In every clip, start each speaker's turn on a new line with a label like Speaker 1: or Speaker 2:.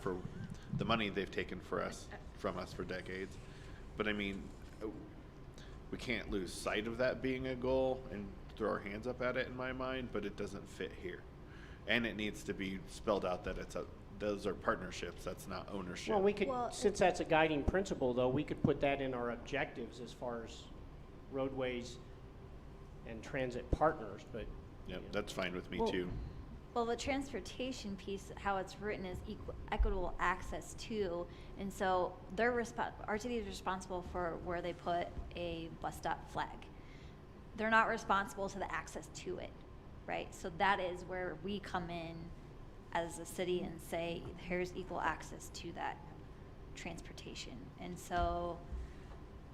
Speaker 1: for the money they've taken for us, from us for decades. But I mean, uh, we can't lose sight of that being a goal and throw our hands up at it in my mind, but it doesn't fit here. And it needs to be spelled out that it's a, those are partnerships, that's not ownership.
Speaker 2: Well, we could,
Speaker 3: Well,
Speaker 2: since that's a guiding principle, though, we could put that in our objectives as far as roadways and transit partners, but.
Speaker 1: Yep,
Speaker 2: you know,
Speaker 1: that's fine with me
Speaker 3: Well-
Speaker 1: too.
Speaker 3: Well, the transportation piece, how it's written is equal, equitable access to, and so they're respo- our city is responsible for where they put a bus stop flag. They're not responsible to the access to it, right? So that is where we come in as a city and say, here's equal access to that transportation. And so,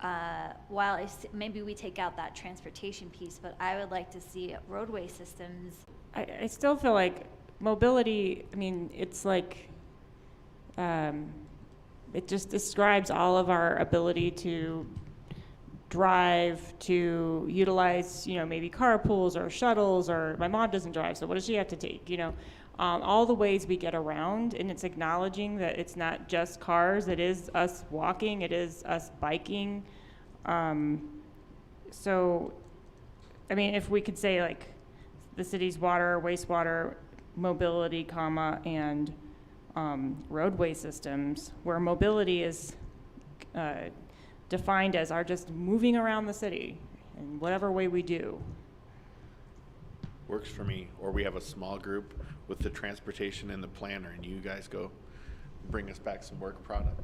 Speaker 3: uh, while I s- maybe we take out that transportation piece, but I would like to see roadway systems
Speaker 4: I, I still feel like mobility, I mean, it's like, um, it just describes all of our ability to drive, to utilize, you know, maybe carpools or shuttles, or my mom doesn't drive, so what does she have to take, you know? Um, all the ways we get around, and it's acknowledging that it's not just cars, it is us walking, it is us biking. Um, so I mean, if we could say like the city's water, wastewater, mobility, comma, and um, roadway systems, where mobility is uh, defined as our just moving around the city in whatever way we do.
Speaker 1: Works for me. Or we have a small group with the transportation and the planner and you guys go bring us back some work product.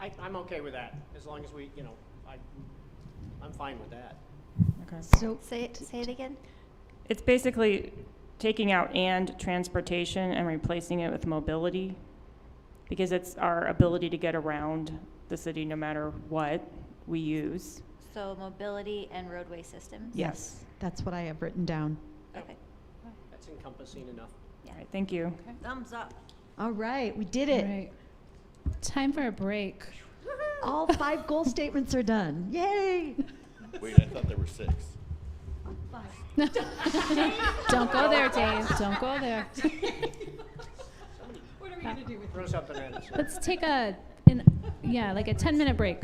Speaker 2: I, I'm okay with that, as long as we, you know, I, I'm fine with that.
Speaker 4: Okay.
Speaker 3: So say it, say it again.
Speaker 4: It's basically taking out and transportation and replacing it with mobility because it's our ability to get around the city no matter what we use.
Speaker 3: So mobility and roadway systems.
Speaker 4: Yes.
Speaker 5: That's what I have written down.
Speaker 3: Okay.
Speaker 2: That's encompassing enough.
Speaker 4: All right, thank you.
Speaker 3: Thumbs up.
Speaker 5: All right, we did
Speaker 6: All
Speaker 5: it.
Speaker 6: right. Time for a break.
Speaker 5: All five goal statements are done. Yay!
Speaker 1: Wait, I thought there were six.
Speaker 6: Don't go there, Dave. Don't go there.
Speaker 2: Throw something at us.
Speaker 6: Let's take a, an, yeah, like a 10 minute break.